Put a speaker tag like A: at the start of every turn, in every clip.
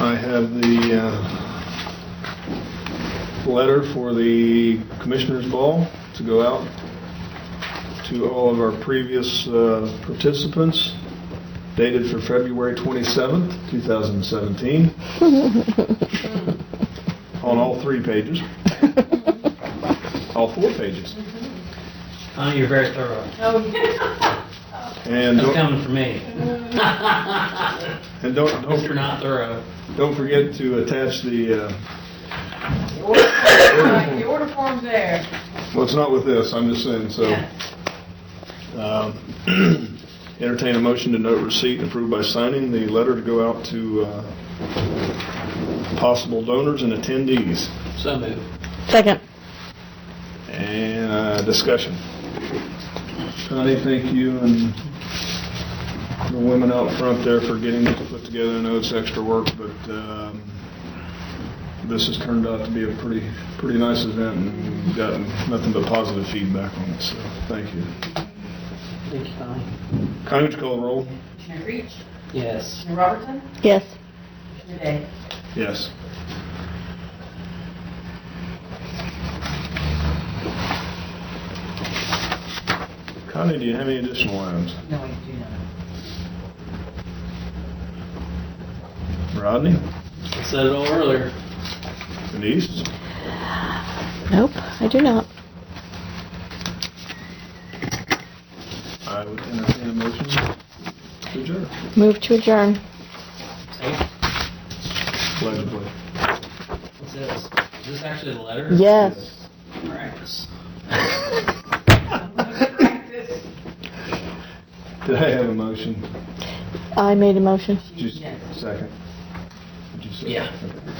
A: I have the uh, letter for the Commissioners Ball to go out to all of our previous uh, participants, dated for February 27th, 2017, on all three pages, all four pages.
B: Oh, you're very thorough.
C: Oh, yeah.
A: And
B: That's
A: don't,
B: coming from me.
A: and don't, don't
B: If you're not thorough.
A: Don't forget to attach the, uh,
C: The order form's right, the order form's there.
A: well, it's not with this, I'm just saying, so. um, Entertain a motion to note receipt and approve by signing the letter to go out to uh, possible donors and attendees.
B: So moved.
D: Second.
A: And uh, discussion. Connie, thank you and the women out front there for getting this put together. I know it's extra work, but um, this has turned out to be a pretty, pretty nice event and we've gotten nothing but positive feedback on it, so thank you.
B: Thank you, Connie.
A: Connie, would you call the roll?
C: Commissioner Creech,
B: Yes.
C: Commissioner Robertson,
D: Yes.
C: Commissioner Day.
A: Yes. Connie, do you have any additional items?
C: No, I do not.
A: Rodney?
B: I said it all earlier.
A: Denise?
D: Nope, I do not.
A: I would entertain a motion to adjourn.
D: Move to adjourn.
B: Hey,
A: Allegedly.
B: what's this? Is this actually the letter?
D: Yes.
B: Practice.
C: I'm gonna go practice.
A: Did I have a motion?
D: I made a motion.
A: Just
C: Yes.
A: second. Did you say?
B: Yeah.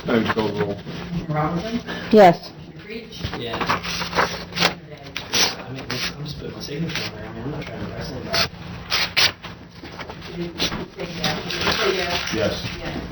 A: I would call the roll.
C: Commissioner Robertson,
D: Yes.
C: Commissioner Creech,
B: Yeah.
C: Commissioner
B: I
C: Day.
B: mean, I'm just putting my signature on there. I mean, I'm not trying to press anybody.
C: Did you say yes? Did you say yes?
A: Yes.
C: Yes.